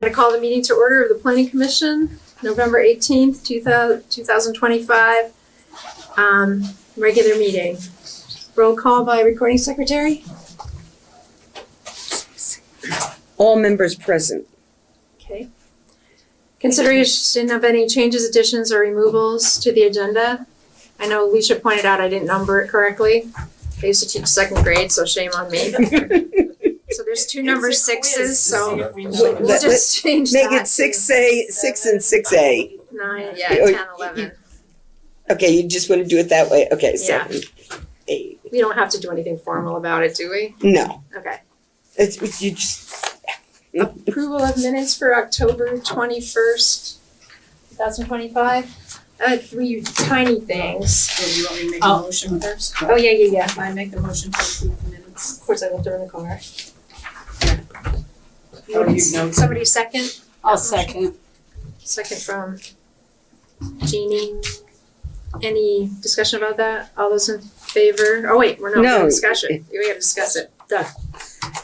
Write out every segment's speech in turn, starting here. I call the meeting to order of the planning commission, November eighteenth, two thousand twenty-five. Um, regular meeting. Roll call by recording secretary? All members present. Okay. Consideration of any changes, additions, or removals to the agenda? I know Alicia pointed out I didn't number it correctly. I used to teach second grade, so shame on me. So there's two number It's a quiz to sixes, so see if we know. Let- we'll let- just change that. Make it six A, six and six A. Nine, yeah, Or- ten, eleven. Okay, you just want to do it that way? Okay, Yeah. seven, eight. We don't have to do anything formal about it, do we? No, Okay. it's, it's- you just, Approval of minutes for October twenty-first, two thousand twenty-five. Uh, three tiny things. Well, you want me to make a Oh. motion first? Oh, yeah, yeah, yeah. I make the motion to approve the minutes. Of course, I left her in the car. Oh, you know. Somebody second, I'll second. second from Jeannie. Any discussion about that? All those in favor? Oh, wait, we're not, we have No. discussion. We gotta discuss it. Done.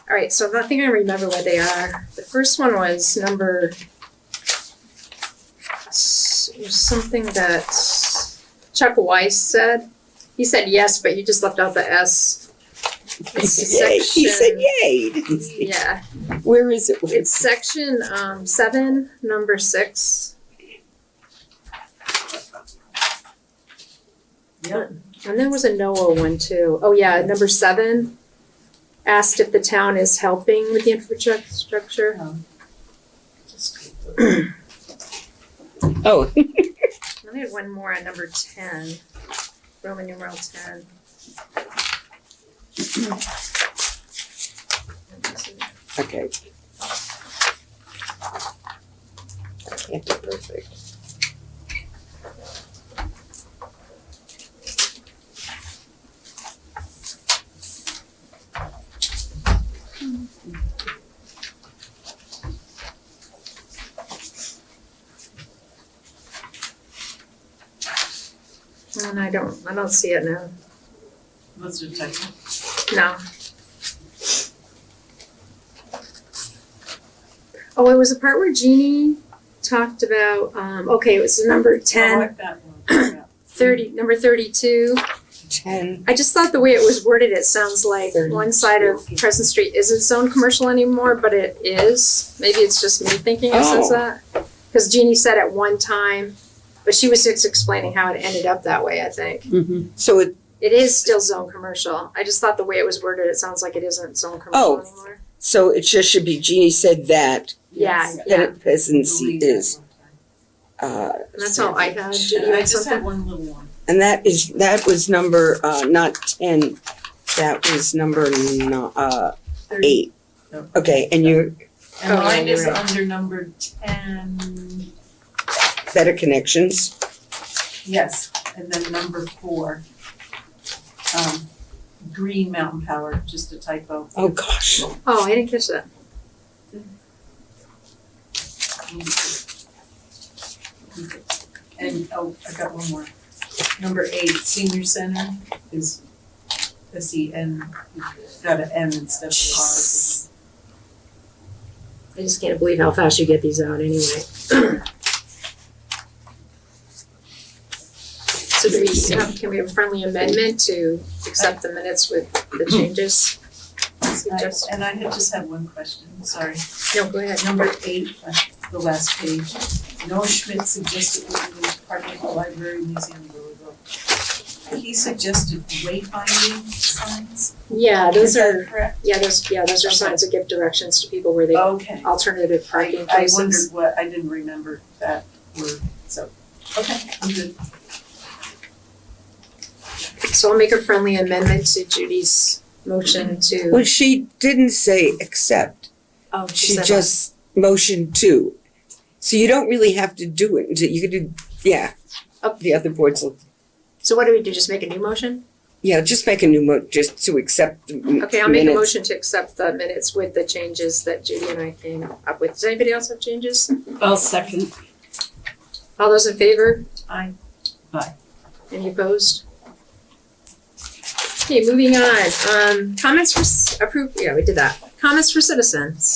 All right, so I think I remember what they are. The first one was number s- something that Chuck Weiss said. He said yes, but you just left out the S. It's yay. He said section- E, yay, didn't he? Yeah, Where is it? It's section um seven, number six. Yep. And there was a NOAA one too. Oh yeah, number seven. Asked if the town is helping with the infrastructure. Oh, And we had one more on number ten, Roman numeral ten. okay. Yeah, perfect. And I don't, I don't see it now. Let's do technical. No. Oh, it was the part where Jeannie talked about, um, okay, it was number Oh, I ten, like that one. Yeah. thirty, number thirty-two. Ten, I just thought the way it was worded, it sounds like one side of Crescent Street isn't zoned commercial anymore, but it is. Maybe it's just me thinking it says Oh. that. Cause Jeannie said at one time, but she was just explaining how it ended up that way, I think. so it, It is still zone commercial. I just thought the way it was worded, it sounds like it isn't zone commercial Oh. anymore. so it just should be Jeannie said that, Yeah, Yes. yeah. that peasancy Delete that is, one time. uh. And that's all I had. Did And you I have just had something? one little one. And that is, that was number, uh, not ten, that was number n- uh, Thirty. eight. No. Okay, and you're And Oh, yeah, mine is you're under number ten, better connections, yes, and then number four. Um, Green Mountain Power, just a typo. oh gosh, Oh, I didn't catch that. And, oh, I got one more. Number eight, senior center is S E N, got an M instead of an I just can't believe how fast you get these out anyway. So do we have, can we have a friendly amendment to accept the minutes with the changes? R. I- Suggest- And I had just had one question, sorry. No, go ahead. Number eight, uh, the last page, Noah Schmidt suggested we move part of the library museum to Riverville. He suggested wayfinding signs, Yeah, is those are, that correct? yeah, those, yeah, those are signs that give directions to people where they, Okay. alternative parking Oh. I, I wondered places. what, I didn't remember that word, so, okay, I'm good. So I'll make a friendly amendment to Judy's motion to. well, she didn't say accept, Oh, she just motioned to. So you don't really have to do it, until you could do, yeah, Up. the other boards, will- So what do we do? Just make a new motion? yeah, just make a new mo, just to accept the m- minutes. Okay, I'll make a motion to accept the minutes with the changes that Judy and I came up with. Does anybody else have changes? I'll second. All those in favor? I, Any opposed? Okay, moving on. Um, comments for, approved, yeah, we did that. Comments for citizens.